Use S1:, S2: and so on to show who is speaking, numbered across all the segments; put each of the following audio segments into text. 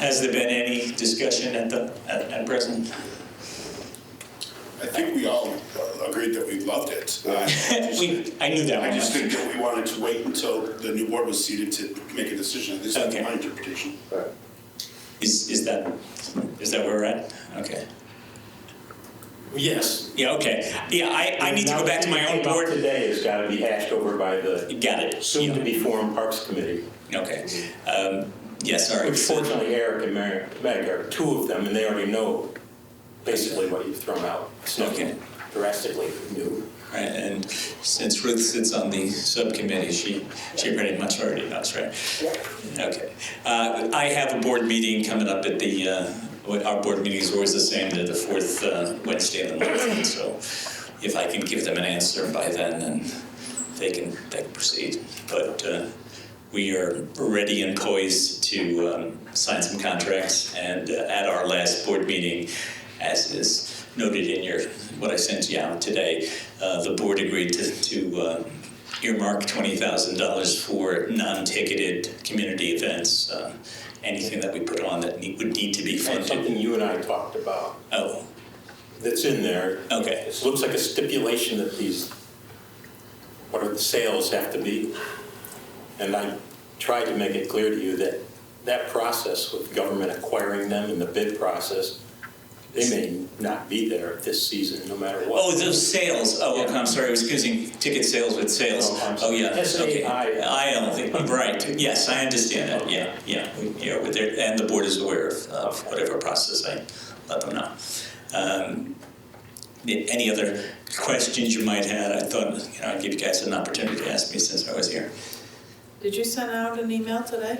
S1: Has there been any discussion at the, at, at present?
S2: I think we all agreed that we loved it. Uh, I just-
S1: We, I knew that
S2: I
S1: one.
S2: just think that we wanted to wait until the new board was seated to make a decision. This is
S1: Okay.
S2: my interpretation.
S1: Is, is that, is that where we're at? Okay.
S3: Yes.
S1: Yeah, okay. Yeah, I, I need to go back to my own
S3: Now, what
S1: board.
S3: came up Today has got to be hashed over by the
S1: Got it. Yeah.
S3: soon-to-be-formed Parks Committee.
S1: Okay. Um, yeah, sorry.
S3: Which fortunately, Eric and Mary, Meg are two of them, and they already know basically what you've thrown out. It's
S1: Okay.
S3: nothing drastically new.
S1: Right, and since Ruth sits on the subcommittee, she, she pretty much already knows, right? Okay. Uh, I have a board meeting coming up at the, uh, what- our board meeting is always the same, they're the fourth uh, Wednesday of the month. and So if I can give them an answer by then, then they can, they can proceed. But uh, we are ready and poised to um, sign some contracts. And uh, at our last board meeting, as is noted in your, what I sent you out today, uh, the board agreed to, to uh, earmark $20,000 for non-ticketed community events, uh, anything that we put on that need- would need to be
S3: And
S1: funded.
S3: something you and I talked about
S1: Oh,
S3: that's in there.
S1: okay.
S3: It looks like a stipulation that these, what are the sales have to be. And I tried to make it clear to you that that process with government acquiring them and the bid process, they may not be there this season, no matter what.
S1: Oh, those sales. Oh, okay, I'm sorry. I was confusing ticket sales with sales.
S3: Oh, I'm
S1: Oh,
S3: sorry.
S1: yeah. Okay.
S3: SAI.
S1: I don't think, right. Yes, I understand that. Yeah, yeah. We- Yeah, with their, and the board is aware of, of whatever process I let them know. Um, a- any other questions you might have? I thought, you know, I'd give you guys an opportunity to ask me since I was here.
S4: Did you send out an email today?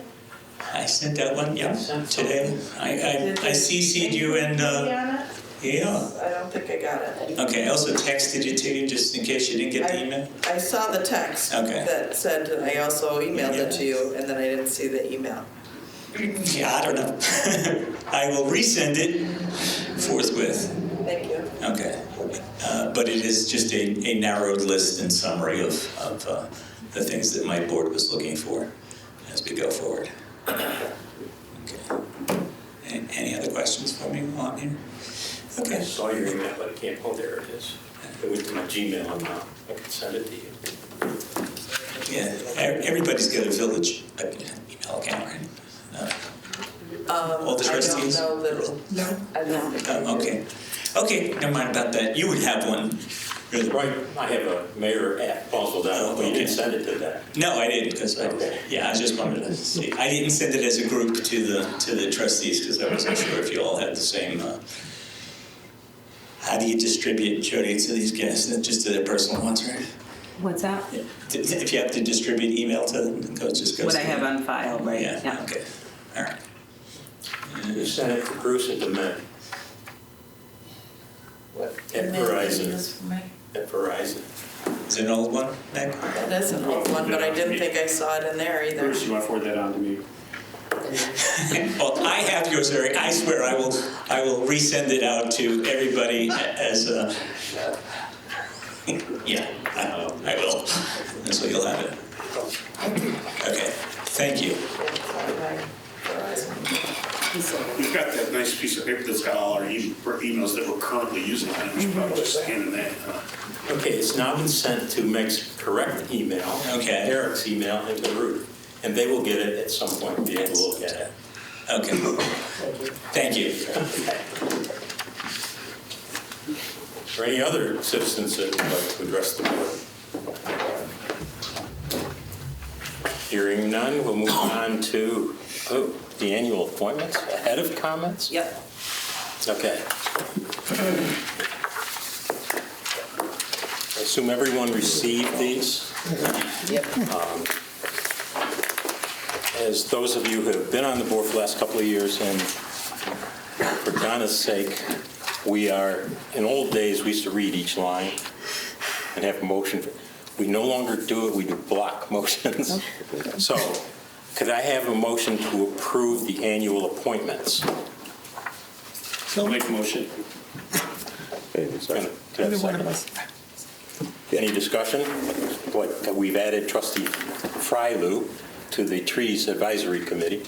S1: I sent that one, yeah,
S3: Sent some.
S1: today. I, I, I CC'd you and, uh,
S4: Diana?
S1: yeah.
S4: I don't think I got it.
S1: Okay, I also texted you too, just in case you didn't get the email.
S4: I saw the text
S1: Okay.
S4: that said, and I also emailed it to you, and then I didn't see the email.
S1: Yeah, I don't know. I will resend it forthwith.
S4: Thank you.
S1: Okay. Uh, But it is just a, a narrowed list and summary of, of uh, the things that my board was looking for as we go forward. Okay. A- Any other questions for me while I'm here?
S3: I
S1: Okay.
S3: saw your email, but I can't, oh, there it is. It went to my Gmail account. I can send it to you.
S1: Yeah, e- everybody's got a village uh, email account, right? Uh, No.
S4: Um,
S1: All the trustees?
S4: I don't know that, I don't think I
S1: Oh,
S4: did.
S1: Okay. Okay, never mind about that. You would have one. You're the-
S3: Right, I have a mayor at Paulsville, but you didn't send it to that.
S1: No, I didn't, because I,
S3: Okay.
S1: yeah, I just wanted to see. I didn't send it as a group to the, to the trustees, because I wasn't sure if you all had the same, uh, how do you distribute, Jody, to these guys, Not just to their personal ones, right?
S5: What's that?
S1: If you have to distribute email to them, it goes, just goes.
S5: What I
S1: to
S5: have
S1: them.
S5: on file, right?
S1: Yeah, okay, all right.
S3: You sent it to Bruce and to Meg
S4: What
S3: At
S4: email is
S3: Verizon.
S4: this for me?
S3: at Verizon.
S1: Is it an old one, Meg?
S4: That is an old one, but I didn't think I saw it in there either.
S2: Bruce, you want to forward that on to me?
S1: Well, I have yours, Eric. I swear I will, I will resend it out to everybody as a, yeah, I will. I will. And so you'll have it. Okay, thank you.
S4: Verizon.
S2: We've got that nice piece of paper that's got all our e- emails that we're currently using on it. We should probably just hand in that. uh,
S3: Okay, it's now been sent to Meg's correct email.
S1: Okay.
S3: Eric's email and to Ruth, and they will get it at some point, be able to look at it.
S1: Okay. Thank you.
S3: Or any other citizens that would like to address the board? Hearing none, we'll move on to, oh, the annual appointments, ahead of comments?
S4: Yep.
S3: Okay. I assume everyone received these? Um, As those of you who have been on the board for the last couple of years, and for Donna's sake, we are, in old days, we used to read each line and have motion. for- We no longer do it, we do block motions. So, could I have a motion to approve the annual appointments?
S2: I'll make a motion.
S3: Can I have a second? Any discussion? Like, we've added trustee Frylu to the Trees Advisory Committee.